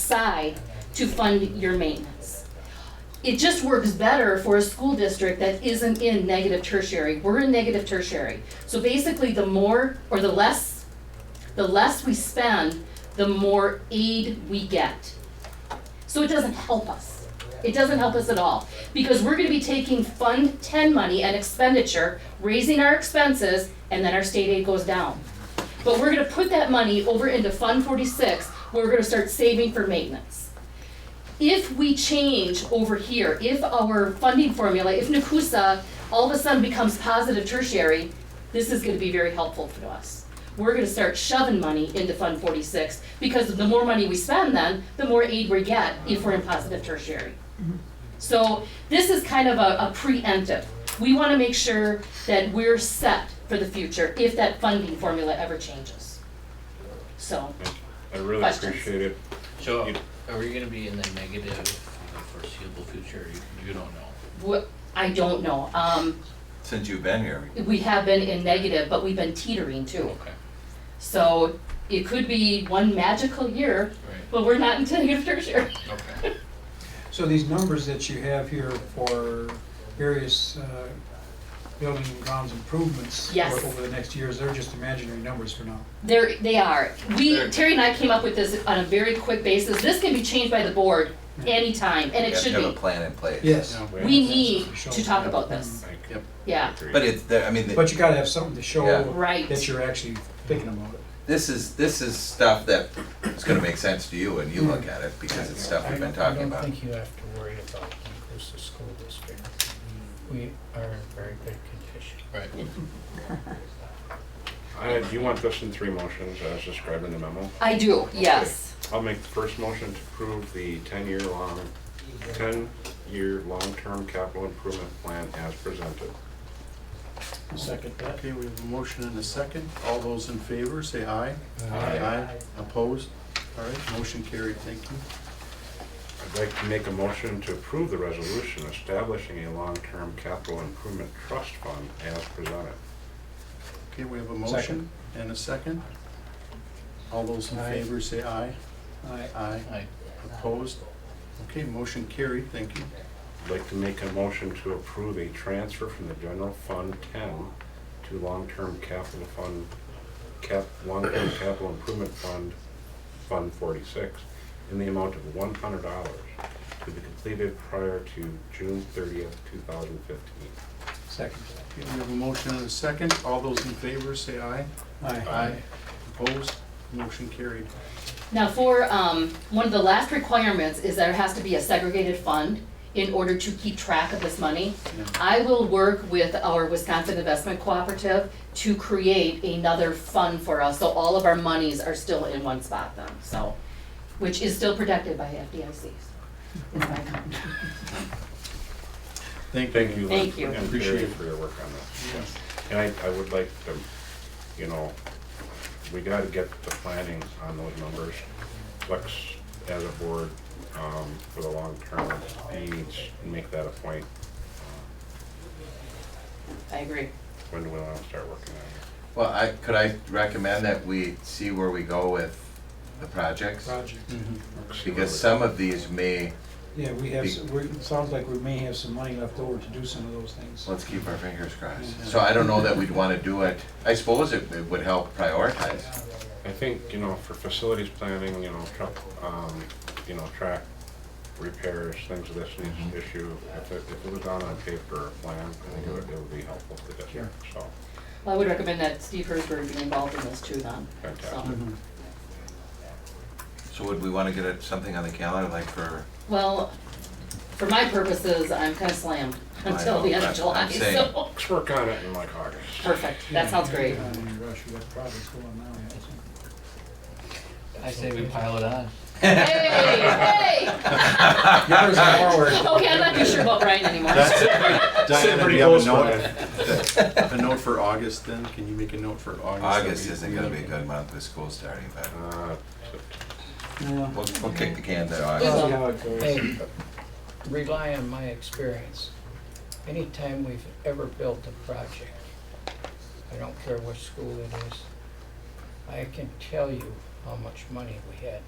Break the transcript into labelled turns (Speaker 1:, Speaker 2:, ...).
Speaker 1: aside to fund your maintenance. It just works better for a school district that isn't in negative tertiary. We're in negative tertiary. So basically, the more or the less, the less we spend, the more aid we get. So it doesn't help us. It doesn't help us at all, because we're gonna be taking Fund Ten money and expenditure, raising our expenses, and then our state aid goes down. But we're gonna put that money over into Fund Forty-Six, where we're gonna start saving for maintenance. If we change over here, if our funding formula, if Nakusa all of a sudden becomes positive tertiary, this is gonna be very helpful for us. We're gonna start shoving money into Fund Forty-Six, because the more money we spend then, the more aid we get if we're in positive tertiary. So this is kind of a, a preemptive. We wanna make sure that we're set for the future if that funding formula ever changes. So,
Speaker 2: I really
Speaker 1: Questions?
Speaker 2: appreciate it.
Speaker 3: So
Speaker 2: You-
Speaker 3: are we gonna be in the negative for the foreseeable future? You, you don't know.
Speaker 1: what, I don't know, um,
Speaker 4: Since you've been here,
Speaker 1: we have been in negative, but we've been teetering too.
Speaker 3: Okay,
Speaker 1: So it could be one magical year,
Speaker 3: right,
Speaker 1: but we're not in negative tertiary.
Speaker 3: okay.
Speaker 5: So these numbers that you have here for various uh, building and grounds improvements
Speaker 1: Yes.
Speaker 5: o- over the next years, they're just imaginary numbers for now.
Speaker 1: There, they are. We,
Speaker 4: There-
Speaker 1: Terry and I came up with this on a very quick basis. This can be changed by the board anytime, and
Speaker 4: you
Speaker 1: it
Speaker 4: have to
Speaker 1: should
Speaker 4: have a
Speaker 1: be.
Speaker 4: plan in place.
Speaker 5: Yes.
Speaker 1: We need
Speaker 5: Show.
Speaker 1: to talk about this,
Speaker 2: I
Speaker 3: Yep.
Speaker 1: yeah,
Speaker 2: agree.
Speaker 4: But it's, there- I mean,
Speaker 5: But you gotta have something to
Speaker 4: Yeah.
Speaker 5: show
Speaker 1: right.
Speaker 5: that you're actually thinking about it.
Speaker 4: this is, this is stuff that is gonna make sense to you when you look at it, because it's stuff we've been talking
Speaker 6: I
Speaker 4: about.
Speaker 6: don't think you have to worry about Inclusa School District. We are in very good condition.
Speaker 3: Right.
Speaker 2: I- Uh, do you want this in three motions as described in the memo?
Speaker 1: I do, yes.
Speaker 2: I'll make the first motion to approve the ten-year long, ten-year long-term capital improvement plan as presented.
Speaker 7: Second that. Okay, we have a motion and a second. All those in favor, say aye. Aye. Opposed? All right, motion carried, thank you.
Speaker 2: I'd like to make a motion to approve the resolution establishing a long-term capital improvement trust fund as presented.
Speaker 7: Okay, we have a motion and a second. All those in
Speaker 5: Aye.
Speaker 7: favor, say aye.
Speaker 5: I-
Speaker 7: Aye.
Speaker 3: Aye.
Speaker 7: Opposed? Okay, motion carried, thank you.
Speaker 2: I'd like to make a motion to approve a transfer from the general fund ten to long-term capital fund, cap, long-term capital improvement fund, Fund forty-six, in the amount of one hundred dollars to be completed prior to June thirtieth, two thousand fifteen.
Speaker 5: Second.
Speaker 7: Okay, we have a motion and a second. All those in favor, say aye.
Speaker 5: Aye.
Speaker 7: Opposed? Motion carried.
Speaker 1: Now for, um, one of the last requirements is there has to be a segregated fund in order to keep track of this money.
Speaker 7: Yeah.
Speaker 1: I will work with our Wisconsin Investment Cooperative to create another fund for us, so all of our monies are still in one spot then, so, which is still protected by FDIC. in my account.
Speaker 7: Thank you.
Speaker 2: Thank you,
Speaker 1: Thank you.
Speaker 2: Lynn, and Barry for your work on this.
Speaker 7: Yes.
Speaker 2: And I, I would like to, you know, we gotta get the planning on those numbers. Flex as a board, um, for the long term, he needs to make that a point. Uh,
Speaker 1: I agree.
Speaker 2: When do we wanna start working on
Speaker 4: Well, I, could I recommend that we see where we go with the projects?
Speaker 5: Project.
Speaker 2: it?
Speaker 7: Mhm.
Speaker 2: See where
Speaker 4: Because
Speaker 2: we-
Speaker 4: some of these may,
Speaker 5: Yeah, we have, s- we're- it sounds like we may have some money left over to do some of those things.
Speaker 4: let's keep our fingers crossed. So I don't know that we'd wanna do it, I suppose it it would help prioritize.
Speaker 2: I think, you know, for facilities planning, you know, truck, um, you know, track repairs, things of this
Speaker 4: Mhm.
Speaker 2: issue, if it, if it was on a paper or plan, I think it would, it would be helpful to the district, so.
Speaker 1: Well, I would recommend that Steve Hersberg be involved in this too then, so.
Speaker 2: Fantastic.
Speaker 4: So would we wanna get it- something on the calendar, like for,
Speaker 1: Well, for my purposes, I'm kind of slammed
Speaker 4: I
Speaker 1: until
Speaker 4: know,
Speaker 1: the end of
Speaker 4: that's what
Speaker 1: July,
Speaker 4: I'm saying.
Speaker 1: so.
Speaker 2: Let's work on it in like August.
Speaker 1: Perfect, that sounds great.
Speaker 5: Not in a rush, we got projects going now, yeah, so.
Speaker 3: I say we pile it on.
Speaker 1: Hey, hey!
Speaker 5: Yours are forward.
Speaker 1: Okay, I'm not too sure about Brian anymore.
Speaker 7: That's it.
Speaker 2: Sitting
Speaker 7: Diana, do
Speaker 2: pretty
Speaker 7: you have a
Speaker 2: close,
Speaker 7: note,
Speaker 2: Brian.
Speaker 7: a note for August then? Can you make a note for August?
Speaker 4: August isn't gonna be a good month with school starting, but
Speaker 2: Uh,
Speaker 5: Yeah.
Speaker 4: we'll, we'll kick the can there,
Speaker 1: We
Speaker 4: August.
Speaker 5: We'll
Speaker 1: will.
Speaker 5: See how it goes.
Speaker 6: Hey, rely on my experience. Anytime we've ever built a project, I don't care what school it is, I can tell you how much money we had